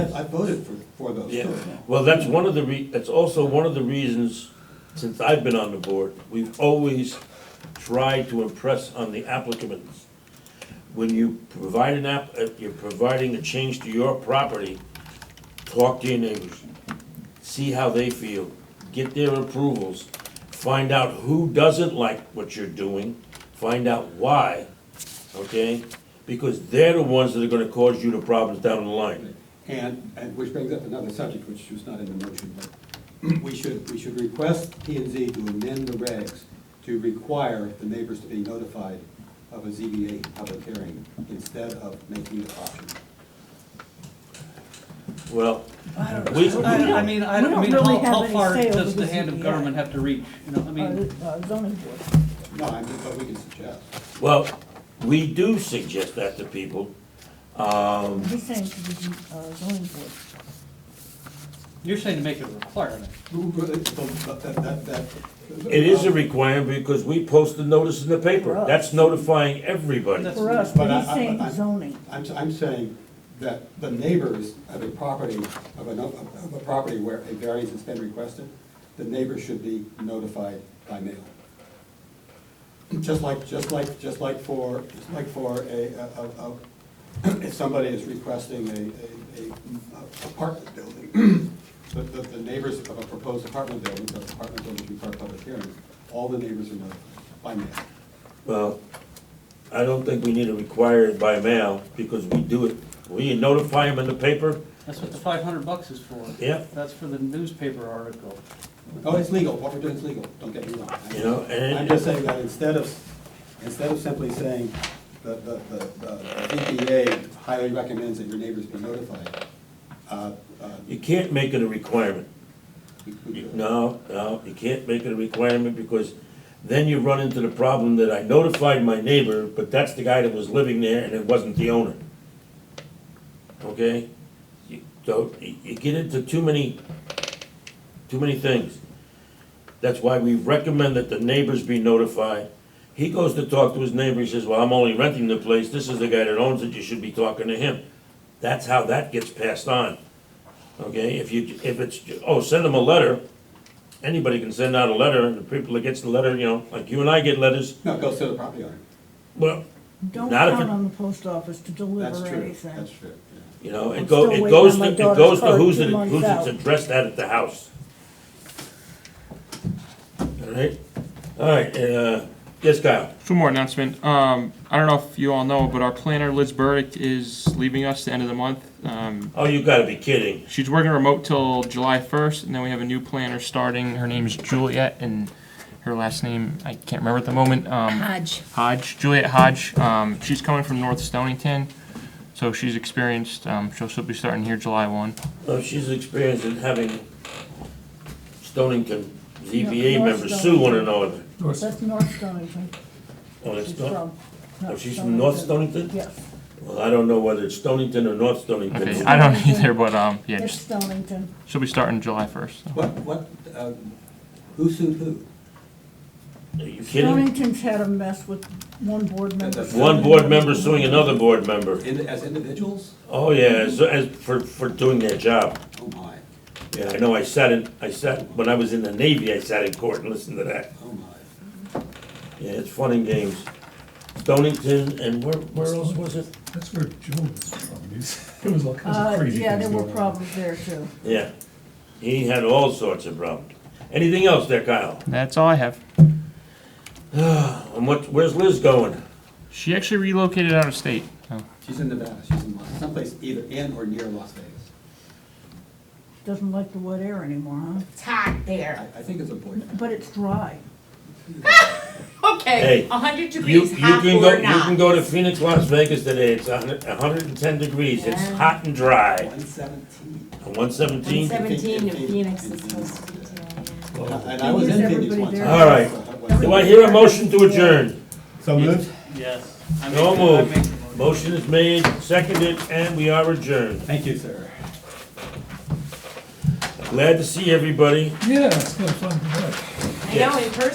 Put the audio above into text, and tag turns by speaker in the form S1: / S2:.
S1: I voted for, for those
S2: Yeah,
S1: too.
S2: well, that's one of the re, that's also one of the reasons, since I've been on the board, we've always tried to impress on the applicants. When you provide an app, uh, you're providing a change to your property, talk to your neighbors, see how they feel, get their approvals, find out who doesn't like what you're doing, find out why, okay? Because they're the ones that are gonna cause you the problems down the line.
S1: And, and which brings up another subject, which was not in the motion, but we should, we should request P and Z to amend the regs to require the neighbors to be notified of a ZBA public hearing instead of making it optional.
S2: Well,
S3: I don't
S2: we,
S3: I, I mean, I don't, I
S4: We don't
S3: mean,
S4: really
S3: how,
S4: have
S3: how
S4: any
S3: far
S4: say over
S3: does
S4: the
S3: the hand of
S4: ZBA.
S3: government have to reach? You know, I mean,
S4: Uh, uh, zoning board.
S1: No, I mean, but we can suggest.
S2: Well, we do suggest that to people. Um,
S4: He's saying to the uh, zoning board.
S3: you're saying to make it a requirement.
S1: But that- that- that-
S2: It is a requirement because we post the notice in the paper. That's notifying everybody.
S3: That's-
S4: For us,
S1: But
S4: but
S1: I-
S4: he's
S1: I- I-
S4: saying zoning.
S1: I'm, I'm saying that the neighbors of a property, of a, no- of a property where a variance has been requested, the neighbors should be notified by mail. Just like, just like, just like for, just like for a, a, a, if somebody is requesting a, a, a apartment building, but the, the neighbors of a proposed apartment building, those apartment buildings require public hearings, all the neighbors are notified by mail.
S2: Well, I don't think we need to require it by mail because we do it, we notify them in the paper.
S3: That's what the five hundred bucks is for.
S2: Yeah.
S3: That's for the newspaper article.
S1: Oh, it's legal, what we're doing is legal, don't get me wrong. I'm-
S2: You know, and-
S1: I'm just saying that instead of, instead of simply saying that the, the, the EPA highly recommends that your neighbors be notified, uh, uh,
S2: You can't make it a requirement.
S1: we- we do
S2: You-
S1: it.
S2: No, no, you can't make it a requirement because then you run into the problem that I notified my neighbor, but that's the guy that was living there and it wasn't the owner. Okay? You- So you you get into too many, too many things. That's why we recommend that the neighbors be notified. He goes to talk to his neighbor, he says, well, I'm only renting the place, this is the guy that owns it, you should be talking to him. That's how that gets passed on. Okay, if you, if it's, oh, send them a letter, anybody can send out a letter, and the people that gets the letter, you know, like you and I get letters,
S1: No, it goes to the property owner,
S2: well,
S4: Don't
S2: Not if
S4: count
S2: it-
S4: on the post office to
S1: that's
S4: deliver
S1: true,
S4: anything.
S1: that's true, yeah.
S2: you know,
S4: I'm
S2: it go,
S4: still
S2: it
S4: waiting
S2: goes
S4: on
S2: to,
S4: my
S2: it
S4: daughter's
S2: goes to
S4: card
S2: who's
S4: two
S2: it,
S4: months
S2: who's it's
S4: out.
S2: addressed at at the house. All right, all right, uh, yes, Kyle,
S5: Just one more announcement. Um, I don't know if you all know, but our planner Liz Burdick is leaving us the end of the month. Um,
S2: oh, you gotta be kidding,
S5: she's working remote till July 1st, and then we have a new planner starting. Her name's Juliet, and her last name I can't remember at the moment. Um,
S6: Hodge.
S5: Hodge, Juliet Hodge. Um, she's coming from North Stonington, so she's experienced. Um, she'll, she'll be starting here July 1.
S2: oh, she's experienced in having Stonington
S4: Yeah,
S2: ZBA
S4: North
S2: members sue one another.
S4: That's North Stonington.
S2: Oh, that's
S4: She's
S2: not,
S4: from.
S2: oh,
S4: North
S2: she's from North Stonington?
S4: Yes,
S2: Well, I don't know whether it's Stonington or North Stonington.
S5: Okay, I don't either, but um, yeah,
S4: it's
S5: just,
S4: Stonington.
S5: she'll be starting July 1st. so.
S1: What, what, uh, who sued who?
S2: Are you kidding?
S4: Stonington's had a mess with one board member. Uh,
S1: That's-
S2: One board member suing another board member.
S1: In, as individuals?
S2: Oh, yeah, as, as, for, for doing their job.
S1: Oh my,
S2: Yeah, I know, I sat in, I sat, when I was in the Navy, I sat in court and listened to that.
S1: oh my.
S2: Yeah, it's fun and games. Stonington and where, where else was it?
S7: That's where Joe was from. He's- It was all kinds
S4: Uh,
S7: of crazy things.
S4: yeah, there were
S7: going on.
S4: problems there too.
S2: Yeah. He had all sorts of problems. Anything else there, Kyle?
S5: That's all I have.
S2: And what, where's Liz going?
S5: She actually relocated out of state. so.
S1: She's in Nevada, she's in, Las- someplace either in or near Las Vegas.
S4: Doesn't like the wet air anymore, huh?
S6: It's hot
S1: I,
S6: there.
S1: I think it's a boyfriend.
S4: But it's dry.
S6: Okay,
S2: Hey,
S6: a hundred
S2: You,
S6: degrees,
S2: you
S6: hot
S2: can go,
S6: or
S2: you can
S6: not.
S2: go to Phoenix, Las Vegas today, it's a hundred, a hundred and ten degrees, it's
S6: Yeah.
S2: hot and dry.
S1: One seventeen.
S2: One seventeen?
S6: Seventeen in Phoenix
S1: In
S6: is
S1: Phoenix,
S6: supposed to be today. yeah.
S1: And I was in
S4: Is
S1: Phoenix
S4: everybody
S1: once.
S4: there?
S2: All right. Do I hear a motion to adjourn?
S1: So moved?
S3: Yes.
S2: No move. Motion is made, seconded, and we are adjourned.
S1: Thank you, sir.
S2: Glad to see everybody.
S7: Yeah, it's kind of fun. to watch.
S6: I know, in person.